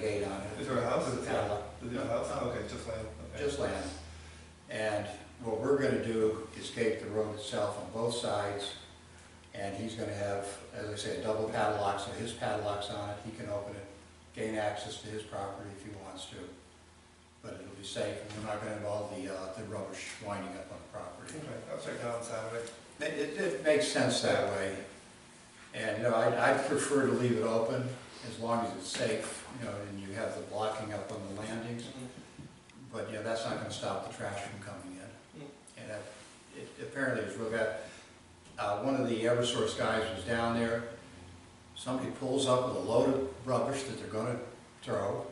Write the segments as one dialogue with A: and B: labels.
A: Is there a house?
B: Is
A: there a house? Oh, Okay, just land, okay.
B: just land. And what we're gonna do is gate the road itself on both sides, and he's gonna have, as I said, double padlock, so his padlock's on it, he can open it, gain access to his property if he wants to. But it'll be safe, and we're not gonna have all the, uh, the rubbish winding up on the property.
A: Okay, I'll check it out on Saturday.
B: It, it- it makes sense that way. And, you know, I, I prefer to leave it open as long as it's safe, you know, and you have the blocking up on the landings. But, yeah, that's not gonna stop the trash from coming in. And that, it apparently is real bad. Uh, one of the Eversource guys was down there, somebody pulls up with a load of rubbish that they're gonna throw.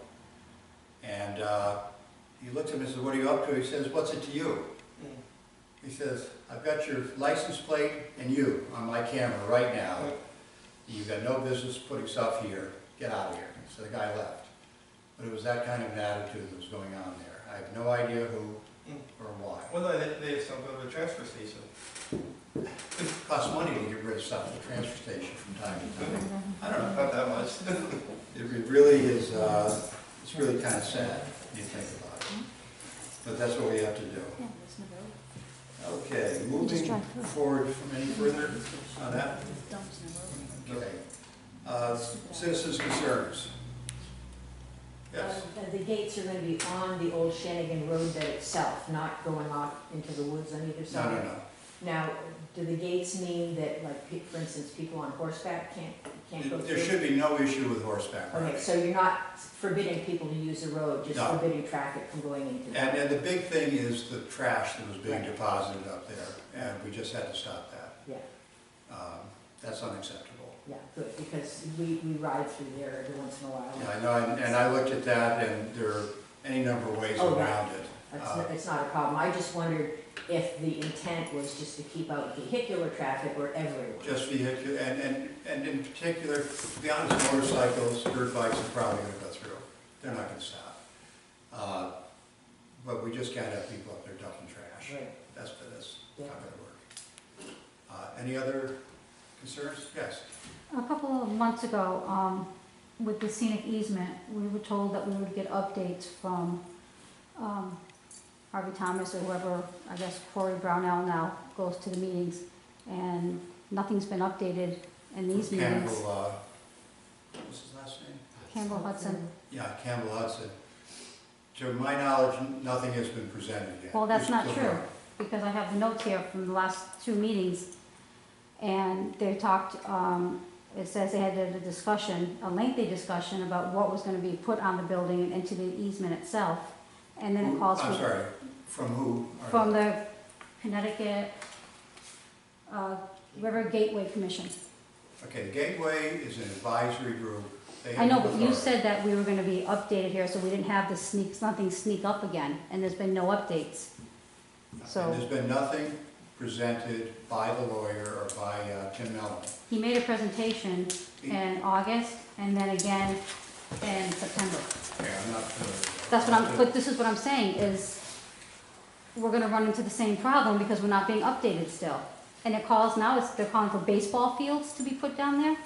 B: And, uh, he looked at him and said, what are you up to? He says, what's it to you? Mm-hmm. He says, I've got your license plate and you on my camera right now. You've got no business putting stuff here, get out of here. So the guy left. But it was that kind of an attitude that was going on there. I have no idea who or why.
A: Well, no, they, they have some go to the transfer station.
B: It costs money to get rid of stuff at the transfer station from time to time. I don't know,
A: Not that much.
B: it re- really is, uh, it's really kind of sad when you think about it. But that's what we have to do.
C: Yeah, there's no road.
B: Okay,
C: Just
B: moving
C: drive through.
B: forward from any further on that.
C: Dump's no road.
B: Okay. Uh, Citizens' concerns? Yes,
D: Uh, The gates are gonna be on the old Shanigan Road bed itself, not going off into the woods on either
B: no,
D: side?
B: no, no.
D: Now, do the gates mean that, like, pe- for instance, people on horseback can't, can't go
B: There-
D: through?
B: There should be no issue with horseback
D: Okay,
B: riding.
D: so you're not forbidding people to use the road, just
B: No.
D: forbidding traffic from going into
B: And,
D: that?
B: and the big thing is the trash that was being
D: Right.
B: deposited up there, and we just had to stop that.
D: Yeah,
B: Um, That's unacceptable.
D: yeah, good, because we, we ride through there every once in a
B: Yeah,
D: while.
B: I know, and- and I looked at that, and there are any number of ways
D: Oh, right.
B: around it.
D: It's,
B: Uh,
D: n- it's not a problem, I just wondered if the intent was just to keep out vehicular traffic or everyone.
B: Just vehicle, and, and, and in particular, to be honest, motorcycles, dirt bikes are probably gonna go through. They're not gonna stop. Uh, But we just can't have people up there dumping trash.
D: Right.
B: That's, that's
D: Yeah.
B: not gonna work. Uh, any other concerns? Yes.
C: A couple of months ago, um, with the scenic easement, we were told that we would get updates from, um, Harvey Thomas or whoever, I guess Corey Brownell now goes to the meetings, and nothing's been updated in these meetings.
B: Campbell, uh, what was his last name?
C: Campbell Hudson,
B: Yeah, Campbell Hudson. To my knowledge, nothing has been presented yet.
C: Well, that's
B: Just
C: not
B: so
C: true.
B: far.
C: because I have the notes here from the last two meetings, and they talked, um, it says they had a discussion, a lengthy discussion about what was gonna be put on the building and into the easement itself, and then it
B: Who-
C: calls
B: I'm
C: for,
B: sorry, from who? are-
C: from the Connecticut, uh, River Gateway Commission.
B: Okay, the Gateway is an advisory group. They
C: I
B: have
C: know, but you
B: authority.
C: said that we were gonna be updated here, so we didn't have the sneaks, nothing sneak up again, and there's been no updates. so-
B: And there's been nothing presented by the lawyer or by uh, Tim Mellon.
C: He made a presentation in August, and then again in September.
B: Yeah, I'm not familiar.
C: That's what I'm, but this is what I'm saying, is we're gonna run into the same problem because we're not being updated still. And it calls now, it's, they're calling for baseball fields to be put down there?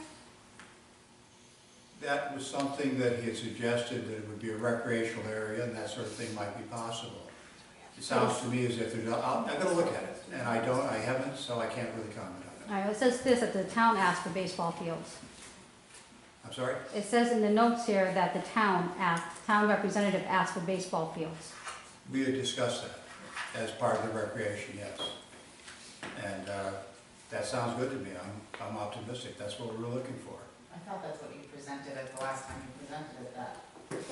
B: That was something that he had suggested, that it would be a recreational area and that sort of thing might be possible. It sounds to me as if there's, I'll- I'm gonna look at it, and I don't, I haven't, so I can't really comment on it.
C: All right, it says this, that the town asked for baseball fields.
B: I'm sorry?
C: It says in the notes here that the town asked, town representative asked for baseball fields.
B: We had discussed that as part of the recreation, yes. And uh, that sounds good to me. I'm, I'm optimistic. That's what we were looking for.
E: I thought that's what you presented at the last time you presented at that.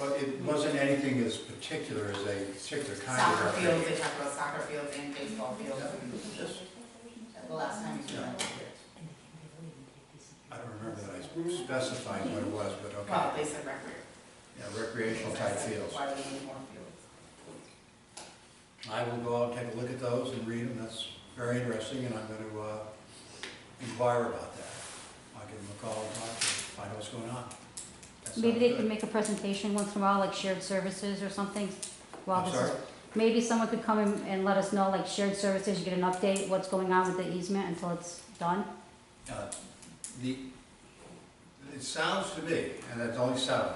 B: But it wasn't anything as particular as a particular kind
E: Soccer
B: of
E: fields, they
B: recreation.
E: talked about soccer fields and baseball fields
B: Just-
E: at the last time you presented.
B: I don't remember that I specified what it was, but
E: Well,
B: okay.
E: they said recreation.
B: Yeah, recreational type fields.
E: Why do we need more fields?
B: I will go out and take a look at those and read them. That's very interesting, and I'm going to inquire about that. I'll give them a call and talk to them, find out what's going on. That
C: Maybe they
B: sounds
C: could
B: good.
C: make a presentation once in a while, like shared services or something, while
B: I'm
C: this is.
B: sorry?
C: Maybe someone could come and, and let us know, like shared services, you get an update, what's going on with the easement until it's done.
B: Uh, The, it sounds to me, and that's only sound,